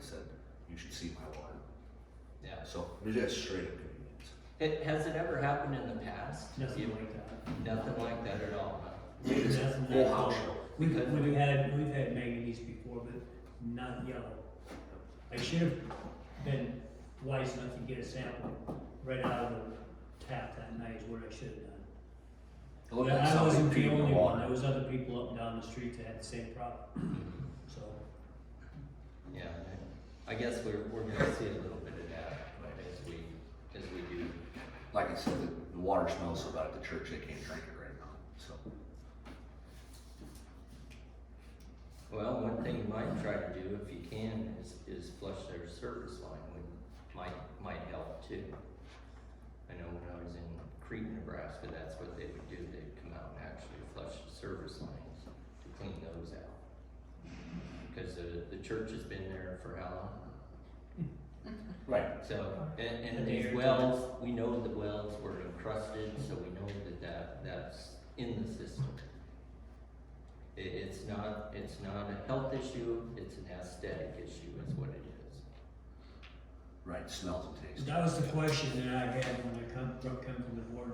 said, you should see my water. Yeah. So there's that straight up convenience. It, has it ever happened in the past? Nothing You- like that. Nothing like that at all. Made this Nothing whole at all. house yellow. We could, we've had, we've had manganese before, but not yellow. I should have been wise enough to get a sample right out of the tap that night is what I should have done. It looked But like I something wasn't the peeing in only the one, water. there was other people up and down the street that had the same problem, so. Yeah, I I guess we're, we're gonna see a little bit of that, but as we, as we do. Like I said, the, the water smells so bad at the church, they can't drink it right now, so. Well, one thing you might try to do if you can is, is flush their service line, would, might, might help too. I know when I was in Crete, Nebraska, that's what they would do, they'd come out and actually flush the service lines to clean those out. Cause the, the church has been there for how long? Right. So, and, And and they these are- wells, we know the wells were encrusted, so we know that that, that's in the system. It, it's not, it's not a health issue, it's an aesthetic issue is what it is. Right, smells and tastes. That was the question that I had when I come, broke come from the board.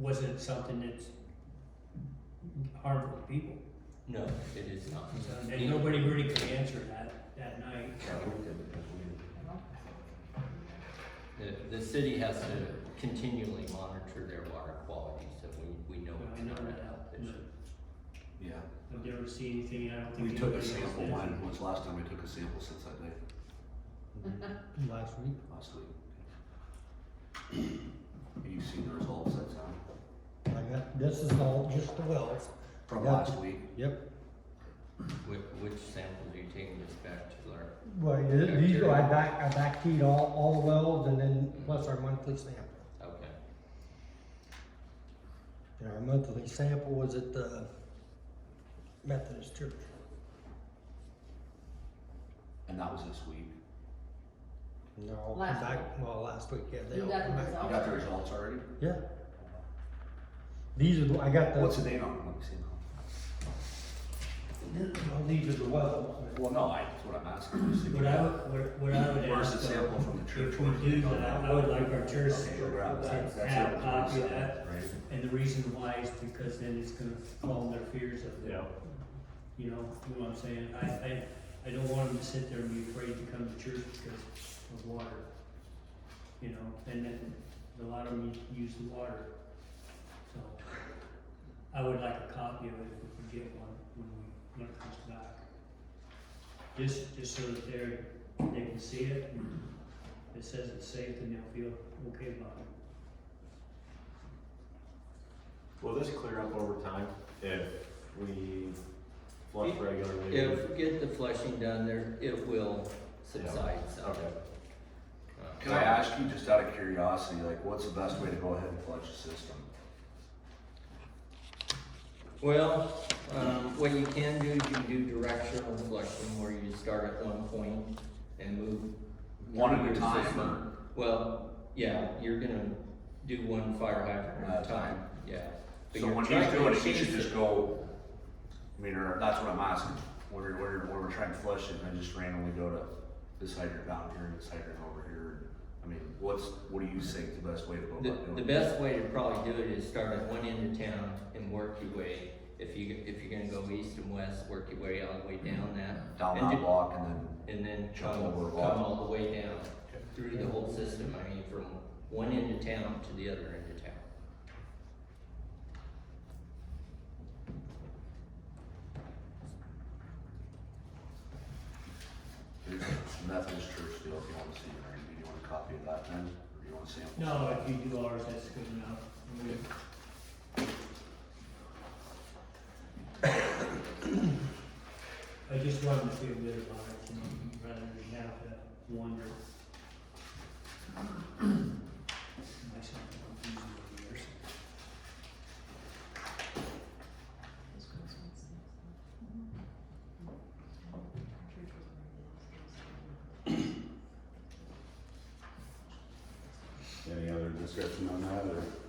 Was it something that's harmful to people? No, it is not. So, And nobody really could answer that, that night. The, the city has to continually monitor their water quality, so we, we know I it's know not a that. health issue. Yeah. I've never seen anything, I don't think. We took a anybody else sample, did. when was the last time we took a sample since that day? Last week? Last week. And you've seen the results that's on, I got, this is all just the wells. from Yeah. last week. Yep. Which, which sample are you taking this back to, Laura? Well, th- these are, I back, I backed all, all the wells and then plus our monthly sample. Okay. And our monthly sample was at the Methodist Church. And that was this week. And they're all Last come back, well, last week, yeah, they You all got come the back. You got the results already? Yeah. These are, the I got the, What's the date on it? Let me see now. well, these are the wells. Well, no, I, that's what I'm asking. just if What you- I, would- what, what I would Where's ask. the uh, sample from the church? If we do that, I would like our church Okay, to grab that. That's have it. a copy of that. Right. And the reason why is because then it's gonna calm their fears of, Yeah, you know, you know what I'm saying? I, I, I don't want them to sit there and be afraid to come to church because of water. You know, and then a lot of them use the water. So I would like a copy of it if we could get one when we, when it comes back. Just, just so that they're, they can see it and it says it's safe and they'll feel okay about it. will this clear up over time if we flush If- regularly? If we get the flushing done there, it will subside some. Okay. Uh, Can I ask you, just out of curiosity, like, what's the best way to go ahead and flush the system? Well, um, what you can do, is you can do directional flushing where you start at one point and move. One at through a your time, system. Well, yeah, you're gonna do one fire hydrant at a time, yeah. But So you're when trying he's to doing it, he change should the- just go, I mean, or that's what I'm asking. When we're, when we're, when we're trying to flush it, and I just randomly go to this hydrant down here and this hydrant over here. I mean, what's, what do you think the best way to go The, about doing it? the best way to probably do it is start at one end of town and work your way, if you, if you're gonna go east and west, work your way all the way down that. Down and that do- block and then, and then Jump come, over a come wall. all the way down through the whole system, I mean, from one end of town to the other end of town. here's the Methodist church deal, if you wanna see, it, right? do you want a copy of that then, or do you want a sample? No, if you do ours, that's good enough. I mean, I just wanted to feel good about it, you know, rather than have to wonder. Myself, I'm confused over the years. Any other discussion on that, or